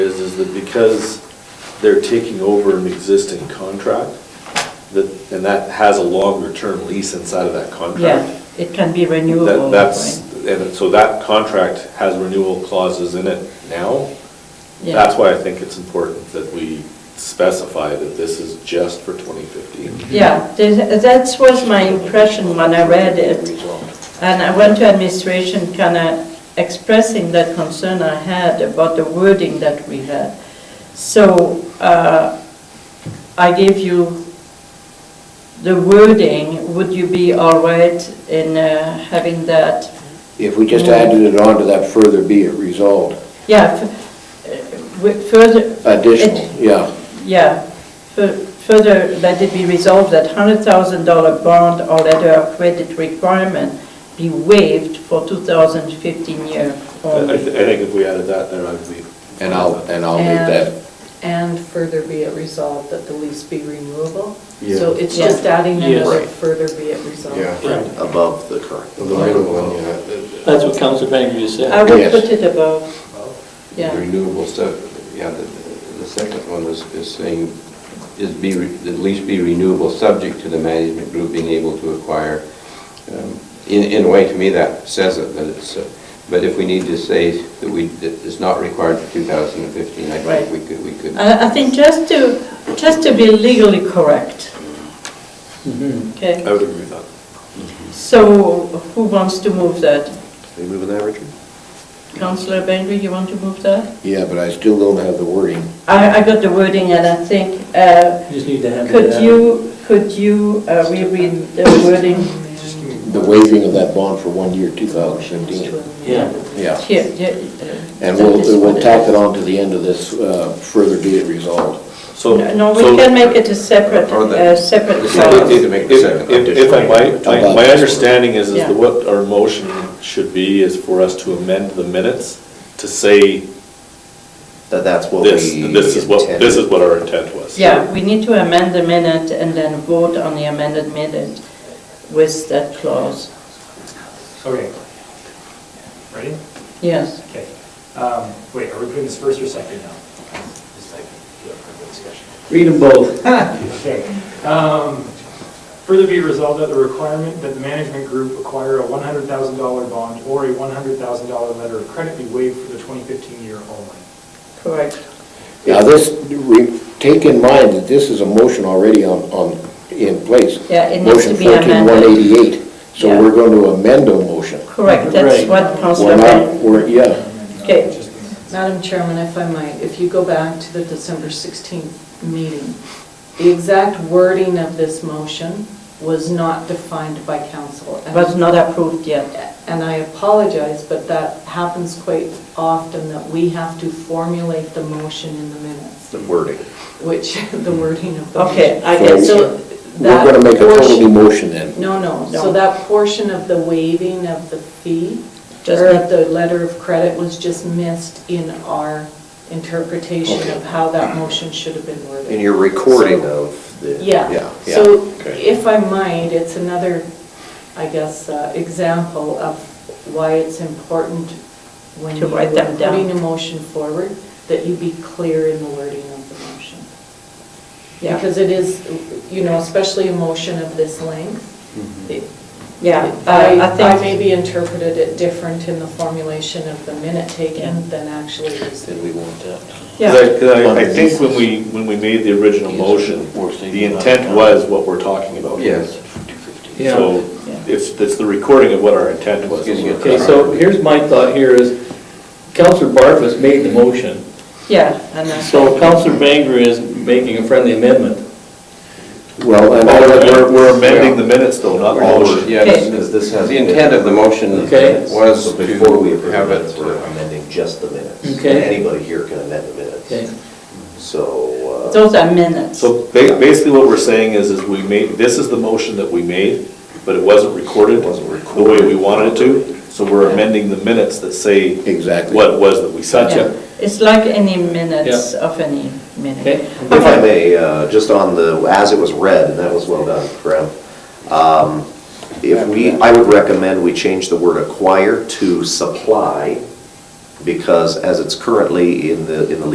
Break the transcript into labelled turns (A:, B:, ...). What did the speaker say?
A: is, is that because they're taking over an existing contract, that, and that has a longer-term lease inside of that
B: Yeah,
A: contract.
B: it can be renewable.
A: That, that's,
B: right?
A: and so that contract has renewal clauses in it now.
B: Yeah.
A: That's why I think it's important that we specify that this is just for 2015.
B: Yeah, there's- that was my impression when I read it. And I went to administration kind of expressing that concern I had about the wording that we had. So uh, I gave you the wording, would you be all right in uh, having that?
C: If we just added it on to that further be it resolved,
B: Yeah, f- uh, with further.
C: additional,
B: it-
C: yeah.
B: Yeah, Fur- further, let it be resolved that $100,000 bond or letter of credit requirement be waived for 2015 year
A: I, I thi-
B: only.
A: I think if we added that, then I'd be.
C: And I'll, and I'll make that,
D: And further be it resolved that the lease be renewable.
E: Yeah.
D: So it's
B: Yeah.
D: just adding
F: Yes.
D: another
C: Right.
D: further be it resolved.
F: Right.
C: above the current.
E: The renewable one, yeah.
F: That's what Council Banger just
B: I
F: said.
B: would
C: Yes.
B: put it above,
E: The
B: yeah,
E: Renewable stuff, yeah, the, the second one is, is saying, is be, re- at least be renewable, subject to the management group being able to acquire. Um, In, in a way, to me, that says it, but it's, uh, but if we need to say that we, that it's not required for 2015, I
B: Right.
E: think we could, we could.
B: I I think just to, just to be legally correct,
F: Mhm.
B: okay?
C: Oh.
A: I would agree with that.
B: So who wants to move that?
C: Are you moving that, Richard?
B: Councillor Bengry, you want to move that?
C: Yeah, but I still don't have the wording.
B: I I got the wording and I think, uh,
F: Just need to have it.
B: could
F: out.
B: you, could you uh, reread the wording?
C: The waiving of that bond for one year, 2015.
F: Yeah.
C: Yeah.
B: Here, yeah. uh,
C: And
B: that
C: we'll,
B: is what
C: we'll
B: it
C: tack
B: is.
C: it on to the end of this, uh, further be it resolved.
A: So.
B: No,
A: so-
B: we can make it a separate,
E: Or the-
B: uh, separate
E: If-
B: clause.
E: if-
A: If, if- if I might, my, my understanding is, is
B: Yeah.
A: that what our motion should be is for us to amend the minutes to say
G: That that's what we.
A: this, this is what, this is
G: intended.
A: what our intent was.
B: Yeah, we need to amend the minute and then vote on the amended minute with that clause.
H: Okay. Ready?
B: Yes.
H: Okay. Um, Wait, are we putting this first or second now? Just like, yeah, for the discussion.
F: Read them both.
H: Okay. Um, Further be resolved that the requirement that the management group acquire a $100,000 bond or a $100,000 letter of credit be waived for the 2015 year only.
B: Correct.
C: Now, this, re- take in mind that this is a motion already on, on, in place.
B: Yeah, it needs to be amended.
C: Motion 14188,
B: Yeah.
C: so we're going to amend a motion.
B: Correct, that's
F: Right.
B: what Councillor
C: We're not,
B: Ben.
C: we're, yeah.
B: Okay.
H: Just the minutes.
D: Madam Chairman, if I might, if you go back to the December 16th meeting, the exact wording of this motion was not defined by council. And-
B: was not approved yet.
D: And I apologize, but that happens quite often, that we have to formulate the motion in the minutes,
G: The wording.
D: which, the wording of the motion.
B: Okay, I guess,
D: So
C: We're going to make a
D: that
C: total new
D: portion-
C: motion then.
D: No, no,
B: No.
D: so that portion of the waiving of the fee,
B: Just
D: or
B: need-
D: of the letter of credit was just missed in our interpretation of how that motion should have been worded.
G: In your recording
D: So-
G: of the.
D: Yeah,
G: yeah.
D: so
G: Okay.
D: if I might, it's another, I guess, uh, example of why it's important when
B: To
D: you are
B: write them down.
D: putting a motion forward, that you be clear in the wording of the motion.
B: Yeah.
D: Because it is, you know, especially a motion of this length. it-
B: yeah, I I
D: I I
B: think.
D: maybe interpreted it different in the formulation of the minute
B: Yeah.
D: taken than actually is.
C: Then we want that.
B: Yeah.
A: Because I- 'cause I, I think when we, when we made the original motion, the intent was what we're talking about.
E: Oh, Yes.
F: Yeah.
A: So it's, it's the recording of what our intent was.
E: Excuse me.
F: Okay, so here's my thought here is, Counselor Barfus made the motion,
B: Yeah, and I
F: so
B: think,
F: Counselor Banger is making a friendly amendment.
C: Well, and all
A: We're
C: that
A: we're- we're amending the minutes though, not all.
E: Motion,
A: we're-
E: yeah, this- this has- The intent of the motion
F: Okay.
E: was
G: So before we
E: to
G: approve
E: have
G: minutes,
E: it.
G: we're amending just the minutes.
F: Okay.
G: And Anybody here can amend the
F: Okay.
G: minutes. So. uh,
B: those are minutes.
A: So ba- basically what we're saying is, is we made, this is the motion that we made, but it wasn't recorded.
G: It wasn't
A: The way we wanted it to, so we're amending the minutes that say.
C: Exactly.
A: What it was that we said.
B: Yeah. It's like any minutes of any
F: Okay.
B: minute.
G: If I may, uh, just on the, as it was read, and that was well done, Graham. Um, If we, I would recommend we change the word acquire to supply, because as it's currently in the, in the